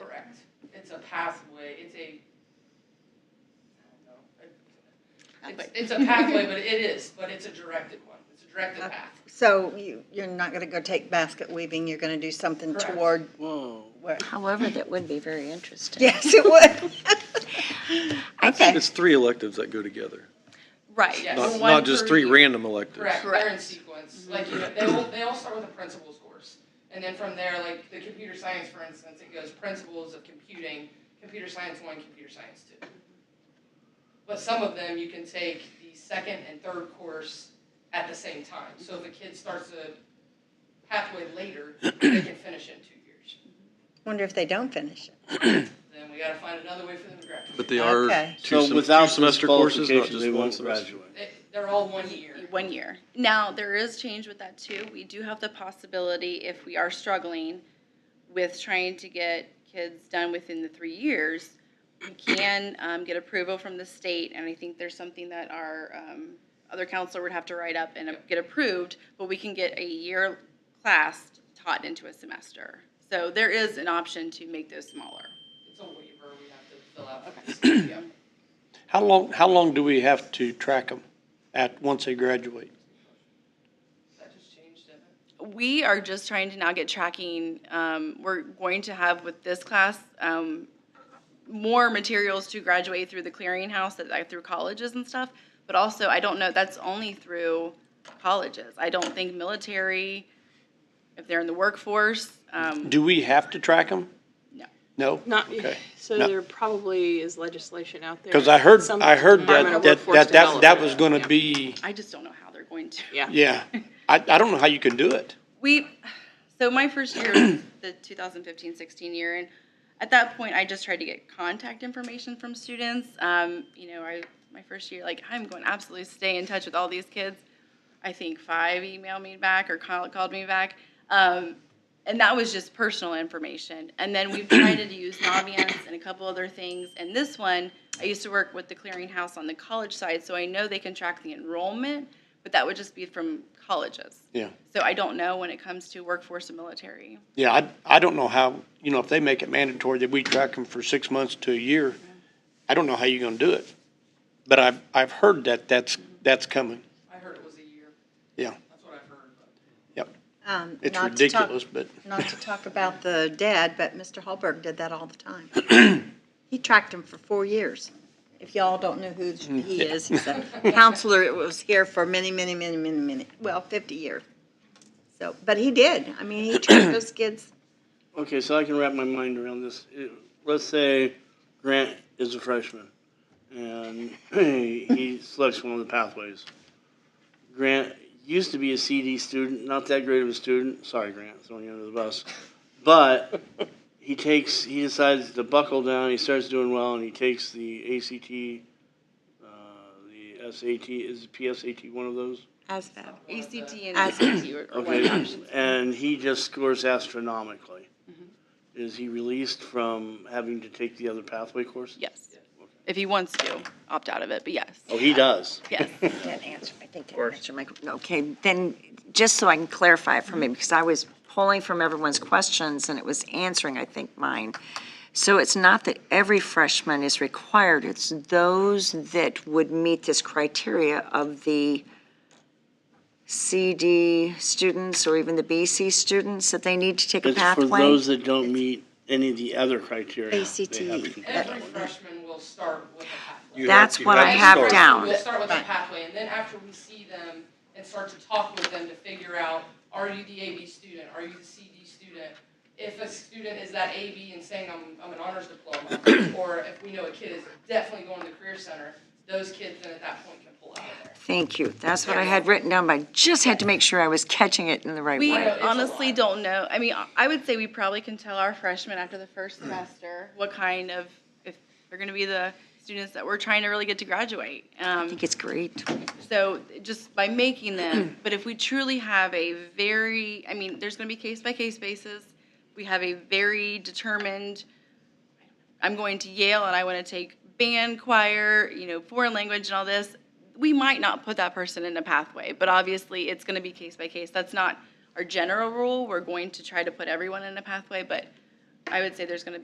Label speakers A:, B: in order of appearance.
A: It's, it's a pathway, but it is, but it's a directed one. It's a directed path.
B: So you, you're not gonna go take basket weaving, you're gonna do something
A: Correct.
B: toward, where-
C: However, that would be very interesting.
B: yes, it would.
C: I think,
D: It's three electives that go together,
E: Right.
A: Yes.
D: not,
A: One
D: not just
A: per
D: three
A: year.
D: random electives.
A: Correct, they're in
E: Correct.
A: sequence. Like, you know, they all, they all start with a principles course. And then from there, like the computer science, for instance, it goes principles of computing, computer science one, computer science two. But some of them, you can take the second and third course at the same time. So if a kid starts a pathway later, they can finish it in two years.
B: Wonder if they don't finish it.
A: Then we gotta find another way for them to graduate.
D: But they are
B: Okay.
D: two
F: So
D: sem-
F: without
D: two
F: this
D: semester courses, not
F: qualification,
D: just
F: they
D: one
F: won't
D: semester.
F: graduate.
A: They, they're all one year.
E: One year. Now, there is change with that too. We do have the possibility, if we are struggling with trying to get kids done within the three years, we can um, get approval from the state, and I think there's something that our um, other counselor would have to write up and uh, get approved, but we can get a year class taught into a semester. So there is an option to make those smaller.
A: It's a waiver we have to fill out. Okay.
G: How long, how long do we have to track them at, once they graduate?
A: That just changed, didn't it?
E: We are just trying to now get tracking. Um, we're going to have with this class um, more materials to graduate through the clearinghouse, that, like, through colleges and stuff. But also, I don't know, that's only through colleges. I don't think military, if they're in the workforce, um,
G: Do we have to track them?
E: No.
G: No?
H: Not,
G: Okay.
H: so
G: No.
H: there probably is legislation out there.
G: Because I heard,
H: Some
G: I heard
H: Department
G: that,
H: of
G: that,
H: Workforce
G: that, that, that
H: Development.
G: was gonna
H: Yeah.
G: be,
E: I just don't know how they're going to.
H: Yeah.
G: yeah. I, I don't know how you can do it.
E: We, so my first year, was the 2015, 16 year, and at that point, I just tried to get contact information from students. Um, you know, I, my first year, like, I'm going to absolutely stay in touch with all these kids. I think five emailed me back or called, called me back. Um, and that was just personal information. And then we've tried to use Naviance and a couple other things. And this one, I used to work with the clearinghouse on the college side, so I know they can track the enrollment, but that would just be from colleges.
G: Yeah.
E: So I don't know when it comes to workforce and military.
G: Yeah, I, I don't know how, you know, if they make it mandatory that we track them for six months to a year, I don't know how you're gonna do it. But I've, I've heard that that's, that's coming.
A: I heard it was a year.
G: Yeah,
A: That's what I've heard, but.
G: yep.
B: Um,
G: It's
B: not to talk-
G: ridiculous, but.
B: Not to talk about the dad, but Mr. Hallberg did that all the time. He tracked him for four years. If y'all don't know who he is, he's a counselor that was here for many, many, many, many, many, well, 50 years. So, but he did. I mean, he tracked those kids.
F: Okay, so I can wrap my mind around this. It- Let's say Grant is a freshman and he selects one of the pathways. Grant used to be a CD student, not that great of a student. Sorry, Grant, throwing you under the bus. But he takes, he decides to buckle down. He starts doing well, and he takes the ACT, uh, the SAT. Is PSAT one of those?
B: ASVAB.
E: ACT and
B: As-
E: ACT or or one
F: Okay,
E: option.
F: and he just scores astronomically. Is he released from having to take the other pathway course?
E: Yes. If he wants to opt out of it, but yes.
F: Oh, he does.
E: Yes.
C: that answer, I think that answered my, okay, then, just so I can clarify it for
F: Mm-hmm.
C: me, because I was pulling from everyone's questions, and it was answering, I think, mine. So it's not that every freshman is required, it's those that would meet this criteria of the CD students or even the BC students that they need to take a
F: It's for
C: pathway?
F: those that don't meet any of the other criteria. they
B: ACT.
F: have to complete
A: Every
F: that one.
A: freshman will start with a pathway.
D: You
C: That's
D: you
C: what I
D: to
C: have
D: start.
C: down.
A: We'll start with a pathway, and then after we see them and start to talk with them to figure out, are you the AB student, are you the CD student? If a student is that AB and saying, I'm, I'm an honors diploma, or if we know a kid is definitely going to the career center, those kids then at that point can pull out of there.
C: Thank you, that's what I had written down, but I just had to make sure I was catching it in the right
E: We
C: way.
A: Right.
E: honestly don't know. I mean, I would say we probably can tell our freshmen after the first semester what kind of, if they're going to be the students that we're trying to really get to graduate.
C: I
E: Um,
C: think it's great.
E: So just by making them, but if we truly have a very, I mean, there's going to be case by case basis. We have a very determined, I'm going to Yale and I want to take band, choir, you know, foreign language and all this. We might not put that person in a pathway, but obviously it's going to be case by case. That's not our general rule. We're going to try to put everyone in a pathway, but I would say there's going to be.